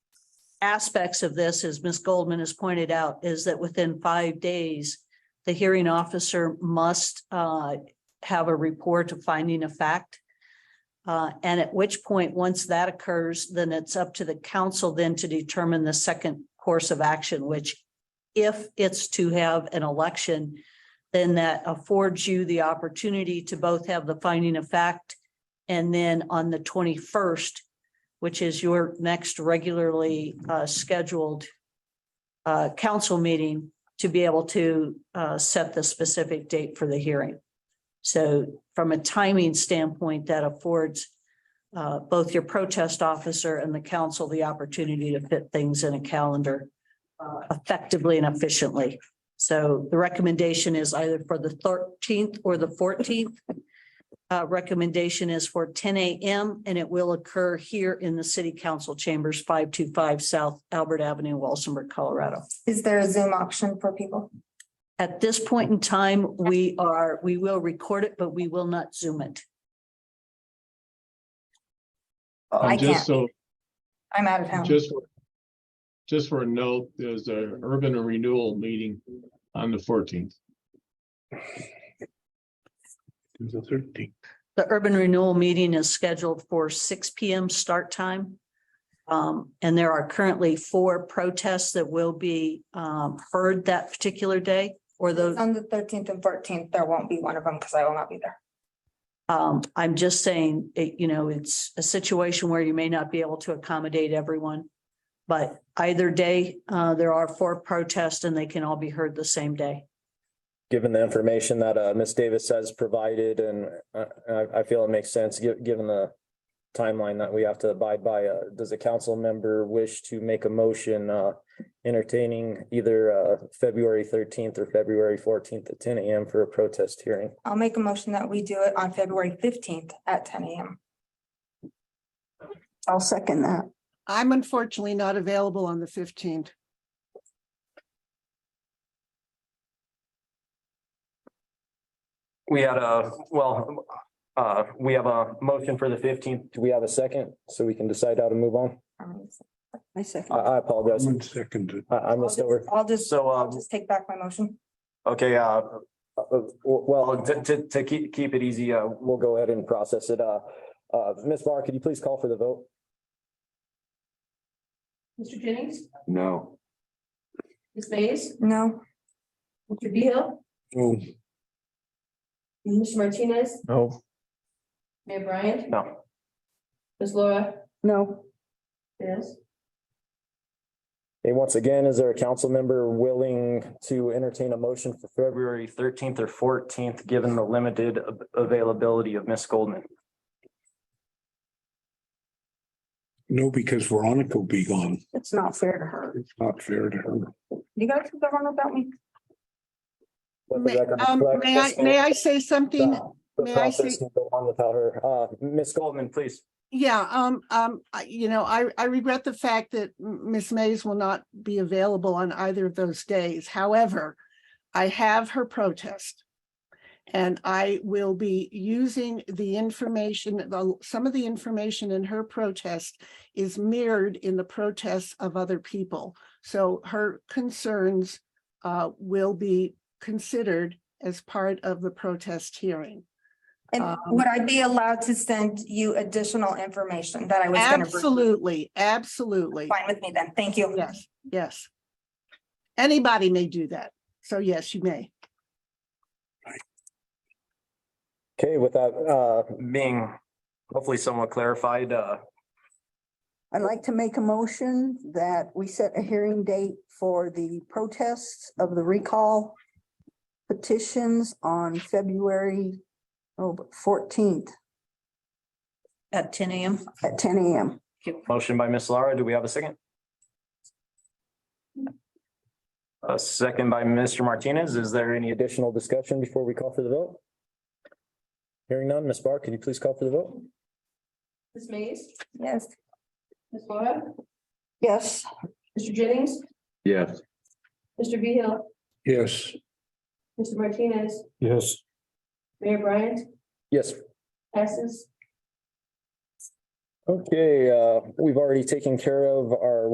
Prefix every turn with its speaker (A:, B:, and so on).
A: aspects of this, as Ms. Goldman has pointed out, is that within five days, the hearing officer must uh, have a report of finding of fact. Uh, And at which point, once that occurs, then it's up to the council then to determine the second course of action, which if it's to have an election, then that affords you the opportunity to both have the finding of fact and then on the twenty-first, which is your next regularly uh, scheduled uh, council meeting, to be able to uh, set the specific date for the hearing. So from a timing standpoint, that affords uh, both your protest officer and the council the opportunity to fit things in a calendar uh, effectively and efficiently. So the recommendation is either for the thirteenth or the fourteenth. Uh, recommendation is for ten AM and it will occur here in the city council chambers, five two five South Albert Avenue, Walsenburg, Colorado.
B: Is there a Zoom option for people?
A: At this point in time, we are, we will record it, but we will not zoom it.
B: I
C: And
B: can't.
C: just so,
B: I'm out of town.
C: just, for- just for a note, there's a urban renewal meeting on the fourteenth. The thirteenth.
A: The urban renewal meeting is scheduled for six P M start time. Um, and there are currently four protests that will be, um, heard that particular day or those.
B: On the thirteenth and fourteenth, there won't be one of them because I will not be there.
A: Um, I'm just saying, it, you know, it's a situation where you may not be able to accommodate everyone. But either day, uh, there are four protests and they can all be heard the same day.
D: given the information that uh Ms. Davis has provided and uh, I I feel it makes sense, gi- given the timeline that we have to abide by, uh, does a council member wish to make a motion uh entertaining either uh February thirteenth or February fourteenth at ten AM for a protest hearing?
B: I'll make a motion that we do it on February fifteenth at ten AM.
E: I'll second that.
F: I'm unfortunately not available on the fifteenth.
D: We had a, well, uh, we have a motion for the fifteenth. Do we have a second so we can decide how to move on?
B: Um, so
E: I
D: I
E: second.
D: I apologize.
C: second.
D: I I
B: I'll
D: missed
B: just-
D: over.
B: I'll just,
G: So,
B: I'll
G: um,
B: just take back my motion.
G: okay, uh,
D: Uh, uh, Well,
G: well, to, to, to keep, keep it easy, uh,
D: we'll go ahead and process it. Uh, uh, Ms. Barr, could you please call for the vote?
H: Mr. Jennings,
C: No.
H: Ms. Mays,
B: No,
H: Mr. Beal, Mr. Martinez,
D: No.
H: Mayor Bryant,
G: no,
H: Ms. Laura,
E: No,
H: yes.
D: And once again, is there a council member willing to entertain a motion for
G: February
D: February?
G: thirteenth or fourteenth, given the limited av- availability of Miss Goldman.
I: No, because Veronica will be gone.
E: it's not fair to her.
I: It's not fair to her.
B: you guys have gone without me.
D: Let the
F: May
D: record
F: um,
D: reflect
F: may I,
D: this
F: may I
D: is
F: say something?
D: the- The
F: may I
D: process
F: say-
D: can go on without her. Uh, Ms.
G: Miss Goldman, please.
F: Yeah, um, um, I- you know, I, I regret the fact that M- Ms. Mays will not be available on either of those days. However, I have her protest. And I will be using the information, the- some of the information in her protest is mirrored in the protests of other people. So her concerns uh, will be considered as part of the protest hearing.
B: And
F: Um,
B: would I be allowed to send you additional information that I was gonna? bring?
F: Absolutely, absolutely.
B: Fine with me then. Thank you.
F: Yes, yes. Anybody may do that. So yes, you may.
D: Okay, with that, uh,
G: Being hopefully somewhat clarified, uh,
E: I'd like to make a motion that we set a hearing date for the protests of the recall petitions on February oh, fourteenth
A: At ten AM,
E: at ten AM.
G: motion by Miss Lara, do we have a second? A second by Mr. Martinez, is there any addition?
D: additional discussion before we call for the vote? Hearing none, Ms. Barr, could you please call for the vote?
H: Ms. Mays,
B: Yes.
H: Ms. Laura,
E: Yes,
H: Mr. Jennings,
C: Yes.
H: Mr. Beal,
I: Yes.
H: Mr. Martinez,
I: Yes.
H: Mayor Bryant,
D: Yes,
H: passes
D: okay, uh, we've already taken care of our